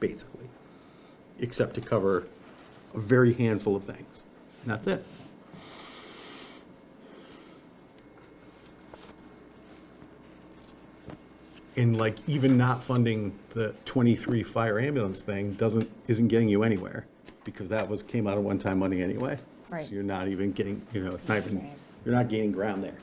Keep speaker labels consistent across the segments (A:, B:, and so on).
A: basically, except to cover a very handful of things. And that's it. And like even not funding the 23 fire ambulance thing doesn't, isn't getting you anywhere because that was, came out of one-time money anyway.
B: Right.
A: So you're not even getting, you know, it's not even,
B: Right.
A: you're not gaining ground there.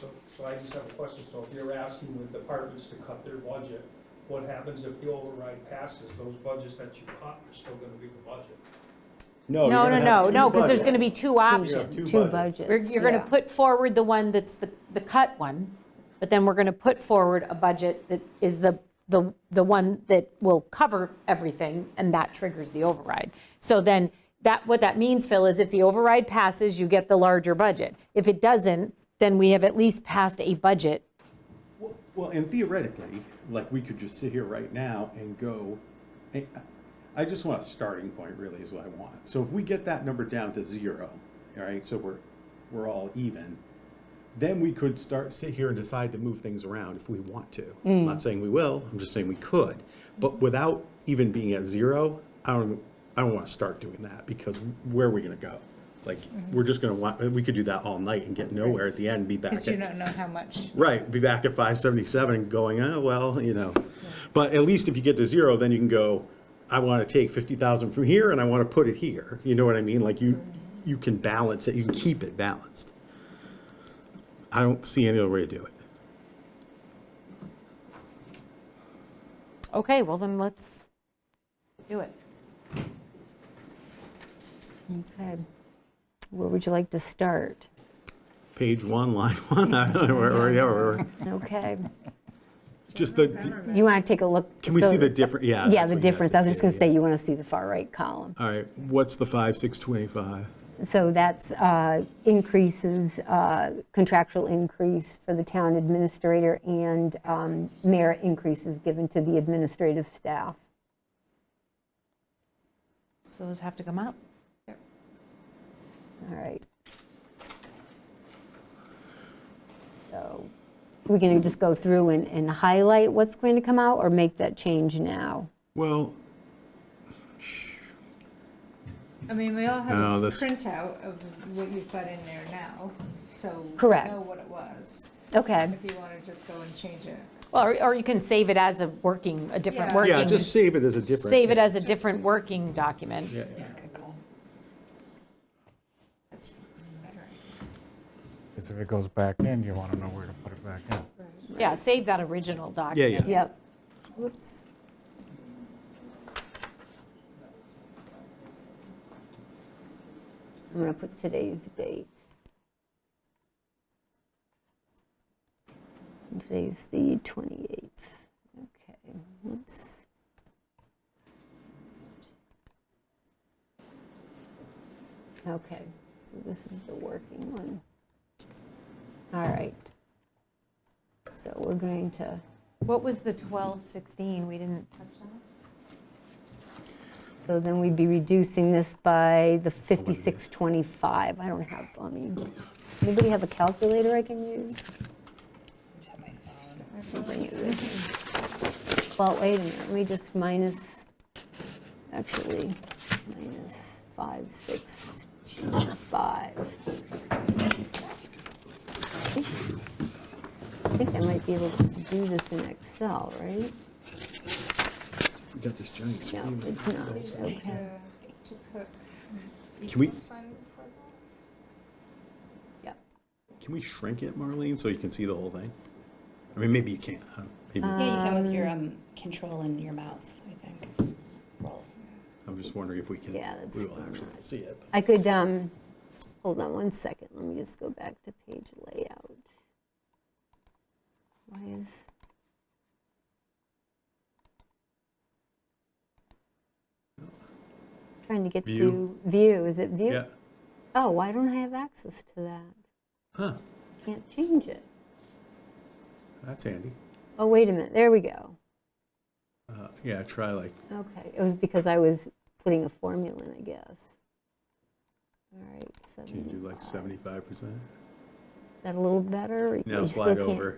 C: So, so I just have a question, so if you're asking the departments to cut their budget, what happens if the override passes, those budgets that you cut are still gonna be the budget?
A: No,
B: No, no, no, no, because there's going to be two
A: two
B: options.
A: bu-
D: Two
A: budgets.
D: budgets.
B: We're- You're going to
D: yeah.
B: put forward the one that's the, the cut one, but then we're going to put forward a budget that is the, the, the one that will cover everything, and that triggers the override. So then, that, what that means, Phil, is if the override passes, you get the larger budget. If it doesn't, then we have at least passed a budget.
A: Well- Well, and theoretically, like, we could just sit here right now and go, I- I just want a starting point really is what I want. So if we get that number down to zero, all right, so we're, we're all even, then we could start, sit here and decide to move things around if we want to. I'm not saying we will, I'm just saying we could. But without even being at zero, I don't, I don't want to start doing that because where are we going to go? Like, we're just going to want, we could do that all night and get nowhere at the end, and be back
E: Because you
A: at
E: don't know how much.
A: Right, be back at five seventy-seven and going, oh, well, you know. But at least if you get to zero, then you can go, I want to take fifty thousand from here and I want to put it here. You know what I mean? Like you, you can balance it, you can keep it balanced. I don't see any other way to do it.
B: Okay, well then, let's do it.
D: Okay. Where would you like to start?
A: Page one, line one, I don't know, or, or, yeah, or,
D: Okay.
A: just the,
D: Do you want to take a look?
A: can we
D: so-
A: see the difference? Yeah.
D: Yeah,
A: that's what
D: the
A: you have to
D: difference. I was just
A: see,
D: going to say,
A: yeah.
D: you want to see the far right column.
A: All right, what's the five, six, twenty-five?
D: So that's uh, increases, uh, contractual increase for the town administrator and um, merit increases given to the administrative staff.
B: So those have to come up.
D: All right. So we're going to just go through and- and highlight what's going to come out or make that change now?
A: Well,
E: I mean, we all
A: No,
E: have a
A: this-
E: printout of what you've got in there now, so. we
D: Correct.
E: Know what it was,
D: Okay.
E: if you want to just go and change it.
B: Well, Or, or you can save it as a working, a different
E: Yeah.
B: working.
A: yeah, just save it as a difference.
B: Save it as a different working document.
E: That's better.
F: Because if it goes back in, you want to know where to put it back in.
B: Yeah, save that original document.
A: yeah.
D: Yep. Whoops. I'm going to put today's date. Today's the 28th. Okay, whoops. Okay, so this is the working one. All right. So we're going to.
B: What was the 1216? We didn't touch that?
D: So then we'd be reducing this by the 5625. I don't have, I mean, anybody have a calculator I can use? I'll bring it with me. Well, wait a minute, let me just minus, actually, minus 5625. I think I might be able to do this in Excel, right?
A: We got this giant
D: No,
A: screen.
D: it's not, okay.
E: To put
A: Can we-
E: equal sign before that?
D: Yep.
A: Can we shrink it, Marlene, so you can see the whole thing? I mean, maybe you can't. huh? Maybe,
G: Yeah, you can with your um, control and your mouse, I think. Roll.
A: I'm just wondering if we can,
D: Yeah, that's
A: we will
D: not-
A: actually see it.
D: I could, um, hold on one second, let me just go back to page layout. Why is? Trying to get
A: View.
D: to, view, is it view?
A: Yeah,
D: Oh, why don't I have access to that?
A: huh,
D: Can't change it.
A: that's handy.
D: Oh, wait a minute, there we go.
A: Uh, Yeah, try like,
D: Okay, it was because I was putting a formula in, I guess. All right,
A: can you do like
D: 75.
A: 75%?
D: Is that a little better? or you
A: Now
D: still
A: slide
D: can't-
A: over.